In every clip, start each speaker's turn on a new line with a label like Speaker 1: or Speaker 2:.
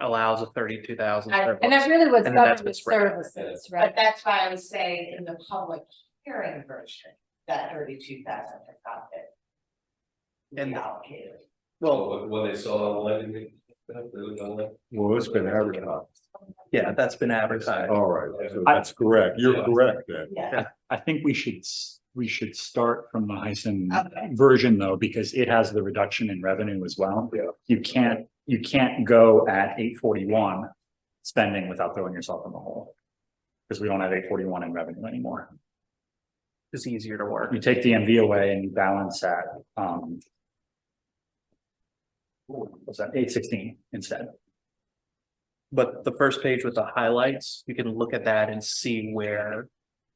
Speaker 1: allows a thirty-two thousand
Speaker 2: I-
Speaker 3: And that
Speaker 1: surplus.
Speaker 3: really was
Speaker 1: And then that's
Speaker 3: government
Speaker 1: what's spread out.
Speaker 3: services,
Speaker 2: But
Speaker 3: right?
Speaker 2: that's why I was saying in the public hearing version, that thirty-two thousand has not been
Speaker 1: And-
Speaker 2: reallocated.
Speaker 1: Well,
Speaker 4: When they saw online, they- they looked online.
Speaker 5: Well, it's been advertised.
Speaker 1: yeah, that's been advertised.
Speaker 5: All right, so that's correct. You're correct then.
Speaker 2: Yeah,
Speaker 6: I think we should, s- we should start from the Heisen
Speaker 2: Okay.
Speaker 6: version though, because it has the reduction in revenue as well.
Speaker 5: Yeah.
Speaker 6: You can't, you can't go at eight forty-one spending without throwing yourself in the hole. Because we don't have eight forty-one in revenue anymore.
Speaker 1: It's easier to work.
Speaker 6: You take the MV away and you balance at, um. What's that, eight sixteen instead?
Speaker 1: But the first page with the highlights, you can look at that and see where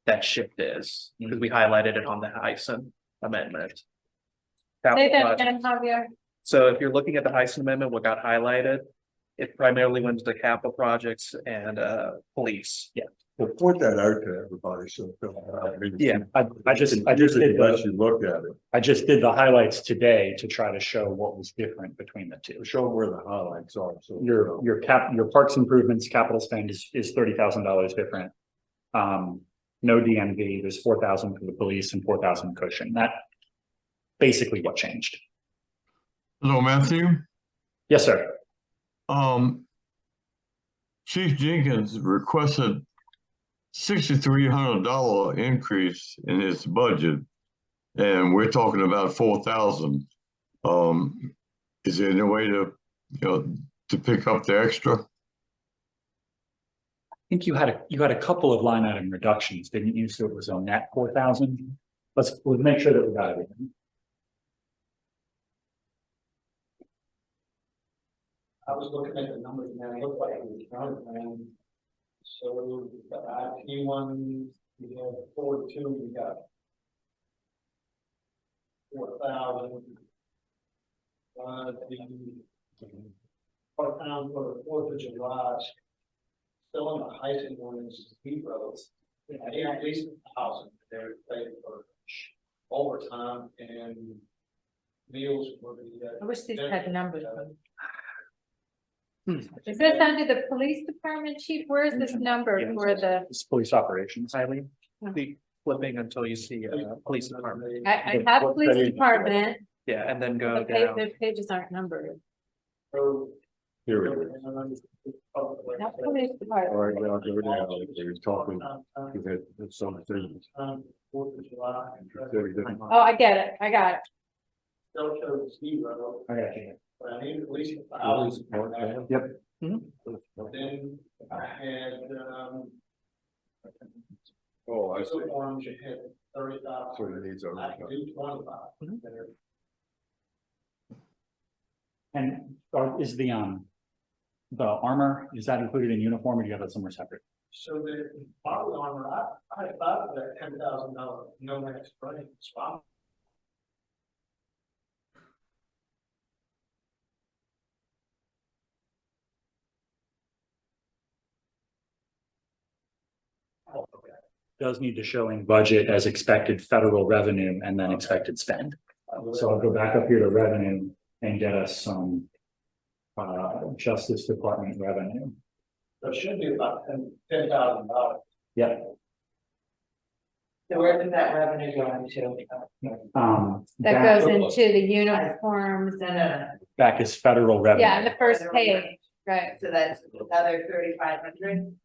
Speaker 1: that shift is, because we highlighted it on the Heisen amendment.
Speaker 3: Say
Speaker 1: Capital
Speaker 3: that
Speaker 1: project.
Speaker 3: again, Javier.
Speaker 1: So if you're looking at the Heisen amendment, what got highlighted, it primarily went to the capital projects and uh police.
Speaker 5: Well, point that out to everybody so. they'll- I mean,
Speaker 1: Yeah,
Speaker 6: I, I just, I just did
Speaker 5: Unless
Speaker 6: the,
Speaker 5: you look at it,
Speaker 6: I just did the highlights today to try to show what was different between the two.
Speaker 5: show them where the highlights are, so.
Speaker 6: Your, your cap, your parks improvements capital spend is, is thirty thousand dollars different. Um, no DMV, there's four thousand for the police and four thousand cushion. That basically what changed.
Speaker 7: Hello, Matthew.
Speaker 6: Yes, sir.
Speaker 7: Um, Chief Jenkins requested sixty-three hundred dollar increase in his budget, and we're talking about four thousand. Um, is there any way to, you know, to pick up the extra?
Speaker 6: I think you had, a you had a couple of line item reductions, didn't you? So it was on that four thousand. Let's, we'll make sure that we got everything.
Speaker 8: I was looking at the numbers and it looked like it was counted, man. So the IP one, you have four two, you got. Four thousand. Uh, the. Part time for the Fourth of July. Still on the highest one is speed roads. They had at least a thousand, they were paid for overtime and meals were the. uh,
Speaker 3: I wish these had numbers.
Speaker 1: Hmm.
Speaker 3: Is this under the police department chief? Where is this number for the,
Speaker 6: It's police operations.
Speaker 1: Eileen, the flipping until you see uh police department,
Speaker 3: I, I have police department,
Speaker 1: yeah, and then go
Speaker 3: but pa-
Speaker 1: down.
Speaker 3: the pages aren't numbered.
Speaker 8: So
Speaker 5: Here it is.
Speaker 3: Not police
Speaker 5: All
Speaker 3: department.
Speaker 5: right, now go down, you're talking,
Speaker 8: Fourth
Speaker 5: you've had some things.
Speaker 8: of July.
Speaker 5: Very different.
Speaker 3: Oh, I get it. I got it.
Speaker 8: Still shows zero,
Speaker 6: I got you.
Speaker 8: but I need at least a
Speaker 5: Always
Speaker 8: thousand.
Speaker 5: part time. Hmm?
Speaker 8: Then I had, um,
Speaker 5: Oh, I see.
Speaker 8: so orange, I had thirty
Speaker 5: So
Speaker 8: thousand,
Speaker 5: it needs
Speaker 8: I
Speaker 5: overtime.
Speaker 8: can do twenty-five.
Speaker 1: Mhm.
Speaker 8: There.
Speaker 6: And are- is the, um, the armor, is that included in uniform or do you have that somewhere separate?
Speaker 8: So the bottle armor, I, I had bought that ten thousand dollar, no max running spot.
Speaker 6: does need to show in budget as expected federal revenue and then expected spend. So I'll go back up here to revenue and get us some uh, Justice Department revenue.
Speaker 8: So it should be about ten, ten thousand dollars.
Speaker 6: Yeah,
Speaker 2: So where did that revenue go into?
Speaker 6: um,
Speaker 3: That
Speaker 6: back,
Speaker 3: goes into the uniforms and,
Speaker 6: back is federal
Speaker 3: yeah, in
Speaker 6: revenue.
Speaker 3: the first page, right?
Speaker 2: So that's another thirty-five hundred?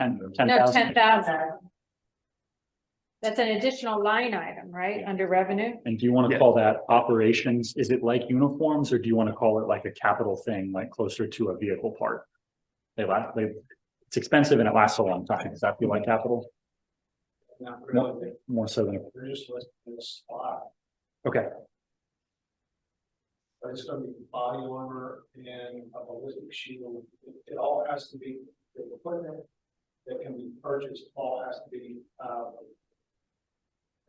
Speaker 6: Ten, ten
Speaker 3: No,
Speaker 6: thousand
Speaker 3: ten thousand. That's an additional line item, right?
Speaker 6: Yeah.
Speaker 3: Under revenue?
Speaker 6: And do you want to
Speaker 1: Yes.
Speaker 6: call that operations? Is it like uniforms or do you want to call it like a capital thing, like closer to a vehicle part? They last, they, it's expensive and it lasts a long time. Does that feel like capital?
Speaker 8: Not really,
Speaker 6: More so than,
Speaker 8: they're just listed in the spot.
Speaker 6: okay.
Speaker 8: But it's gonna be body armor and a ballistic shield, it, it all has to be, the equipment that can be purchased, all has to be, um,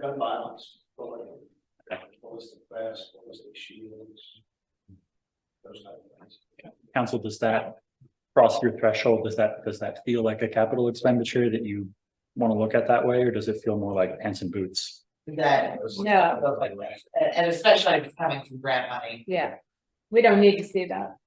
Speaker 8: gun violence, related. ballistic vests, ballistic shields, those type of things.
Speaker 6: Council, does that cross your threshold? Does that, does that feel like a capital expenditure that you want to look at that way, or does it feel more like pants and boots?
Speaker 2: That, no, it goes like this. and, and especially if it's coming from grant money.
Speaker 3: Yeah. We don't need to see that.